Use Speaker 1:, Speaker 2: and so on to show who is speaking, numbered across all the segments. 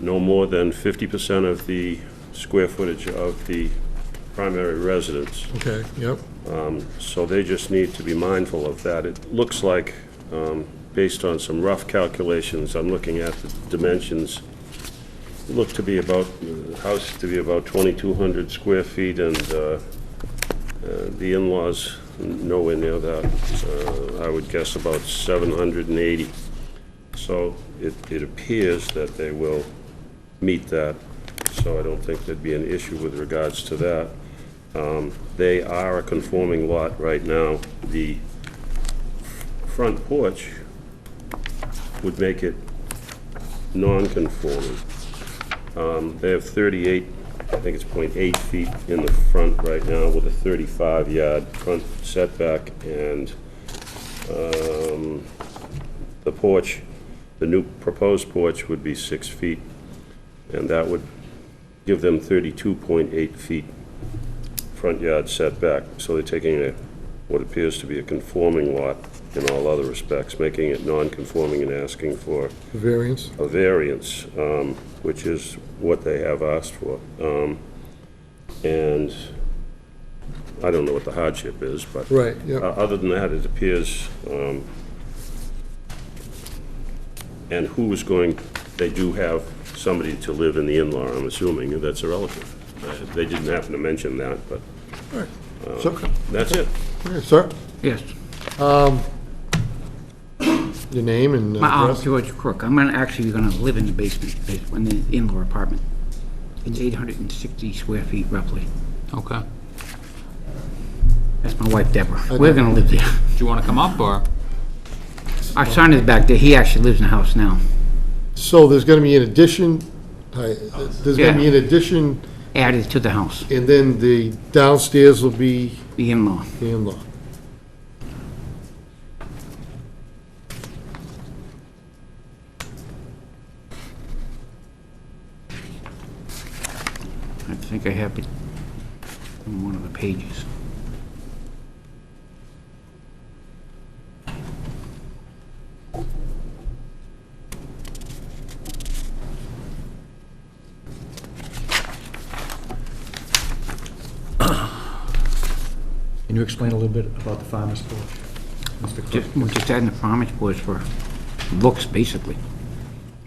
Speaker 1: no more than 50% of the square footage of the primary residence.
Speaker 2: Okay, yep,
Speaker 1: So they just need to be mindful of that. It looks like, um, based on some rough calculations, I'm looking at the dimensions, it looked to be about, the house to be about 2,200 square feet, and uh, uh, the in-laws nowhere near that. Uh, I would guess about 780. So it it appears that they will meet that, so I don't think there'd be an issue with regards to that. They are a conforming lot right now. The front porch would make it non-conforming. Um, They have 38, I think it's .8 feet in the front right now with a 35-yard front setback, and um, the porch, the new proposed porch would be 6 feet, and that would give them 32.8 feet front yard setback, so they're taking a, what appears to be a conforming lot in all other respects, making it non-conforming and asking for
Speaker 2: the variance,
Speaker 1: a variance, um, which is what they have asked for. Um, And I don't know what the hardship is, but.
Speaker 2: right,
Speaker 1: Uh,
Speaker 2: yep,
Speaker 1: Other than that, it appears, um, and who is going, they do have somebody to live in the in-law, I'm assuming, that's a relative. Uh, They didn't happen to mention that, but
Speaker 2: so,
Speaker 1: that's it.
Speaker 2: okay, sir,
Speaker 3: Yes,
Speaker 2: your name and
Speaker 3: my, I'm
Speaker 2: address?
Speaker 3: George Crook. I'm gonna, actually gonna live in the basement, bas- in the in-law apartment. It's 860 square feet roughly.
Speaker 4: Okay.
Speaker 3: That's my wife Deborah. We're gonna live there.
Speaker 4: Do you want to come up, or?
Speaker 3: Our son is back there. He actually lives in the house now.
Speaker 2: So there's gonna be an addition, hi, there's gonna be an addition,
Speaker 3: Added to the house,
Speaker 2: and then the downstairs will be
Speaker 3: the in-law.
Speaker 2: the in-law.
Speaker 3: I think I have it on one of the pages.
Speaker 5: Can you explain a little bit about the farmer's porch? Mr. Cook?
Speaker 3: Just, we're just adding the farmer's porch for looks, basically.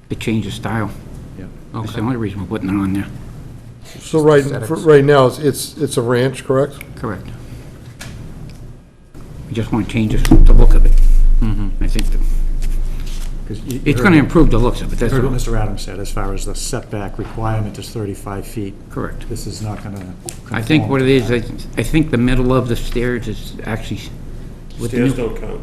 Speaker 3: To change the style.
Speaker 5: Yeah.
Speaker 3: That's the only reason we're putting it on there.
Speaker 2: So right, for- right now, it's- it's, it's a ranch, correct?
Speaker 3: Correct. We just want to change this- the look of it.
Speaker 1: Mm-hmm.
Speaker 3: I think that-
Speaker 5: 'Cause you- you
Speaker 3: it's
Speaker 5: heard
Speaker 3: going to
Speaker 5: what-
Speaker 3: improve the looks of it, that's
Speaker 5: Heard what
Speaker 3: all.
Speaker 5: Mr. Adams said, as far as the setback requirement is 35 feet.
Speaker 3: Correct.
Speaker 5: This is not going to.
Speaker 3: I think what it is, I I think the middle of the stairs is actually with the
Speaker 1: Stairs
Speaker 3: new...
Speaker 1: don't count,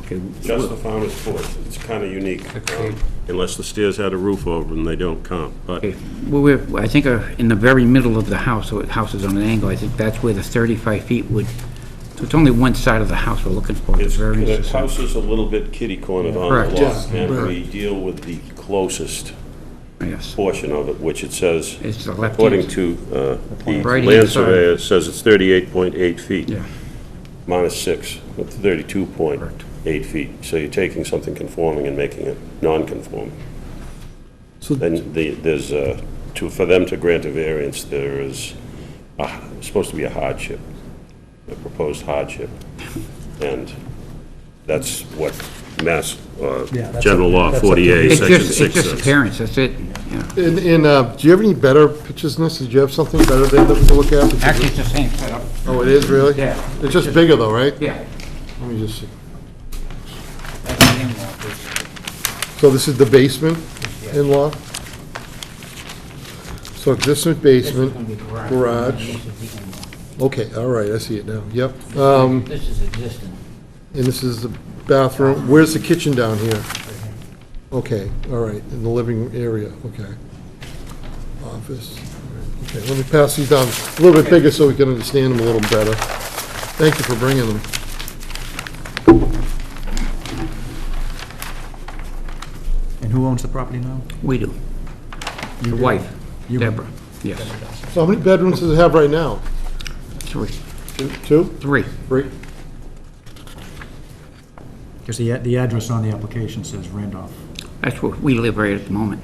Speaker 3: Okay,
Speaker 1: just the farmer's porch. It's kind of unique. um, Unless the stairs had a roof over them, they don't count, but
Speaker 3: okay. Well, we're, I think uh, in the very middle of the house, so the house is on an angle, I think that's where the 35 feet would, so it's only one side of the house we're looking for, the
Speaker 1: it's, the
Speaker 3: variance.
Speaker 1: house is a little bit kitty-cornered on
Speaker 3: Correct.
Speaker 1: the lot.
Speaker 2: Yeah,
Speaker 1: And
Speaker 2: right.
Speaker 1: we deal with the closest
Speaker 3: Yes,
Speaker 1: portion of it, which it says,
Speaker 3: It's the left
Speaker 1: according
Speaker 3: hand.
Speaker 1: to uh, the
Speaker 3: Right hand
Speaker 1: land
Speaker 3: side.
Speaker 1: surveyor, it says it's 38.8 feet.
Speaker 3: yeah,
Speaker 1: minus six, with 32.8 feet. So you're taking something conforming and making it non-conforming.
Speaker 2: So-
Speaker 1: Then the- there's, uh, to, for them to grant a variance, there is, a- supposed to be a hardship, a proposed hardship. And that's what Mass, uh,
Speaker 5: Yeah, that's
Speaker 1: General
Speaker 5: up-
Speaker 1: Law
Speaker 5: that's up to
Speaker 1: 48,
Speaker 5: you.
Speaker 3: It's
Speaker 1: Section
Speaker 3: just,
Speaker 1: 6
Speaker 3: it's just
Speaker 1: says.
Speaker 3: appearance, that's it, yeah.
Speaker 2: And, and, uh, do you have any better pictures than this? Did you have something better than that we can look at? Because
Speaker 3: Actually, it's the same setup,
Speaker 2: it- Oh, it is, really?
Speaker 3: Yeah.
Speaker 2: It's just bigger though, right?
Speaker 3: yeah.
Speaker 2: Let me just see.
Speaker 3: That's the in-law, basically.
Speaker 2: So this is the basement in-law? So existing basement, garage, okay, all right, I see it now, yep. Um,
Speaker 3: This is existing.
Speaker 2: and this is the bathroom, where's the kitchen down here? Okay, all right, in the living area, okay. Office, all right, okay, let me pass these down, a little bit bigger so we can understand them a little better. Thank you for bringing them.
Speaker 5: And who owns the property now?
Speaker 3: We do. Your wife,
Speaker 5: You-
Speaker 3: Deborah, yes.
Speaker 2: So how many bedrooms does it have right now?
Speaker 3: Three.
Speaker 2: Two- Two?
Speaker 3: Three.
Speaker 2: Three?
Speaker 5: Because the, the address on the application says Randolph.
Speaker 3: That's where we live right at the moment.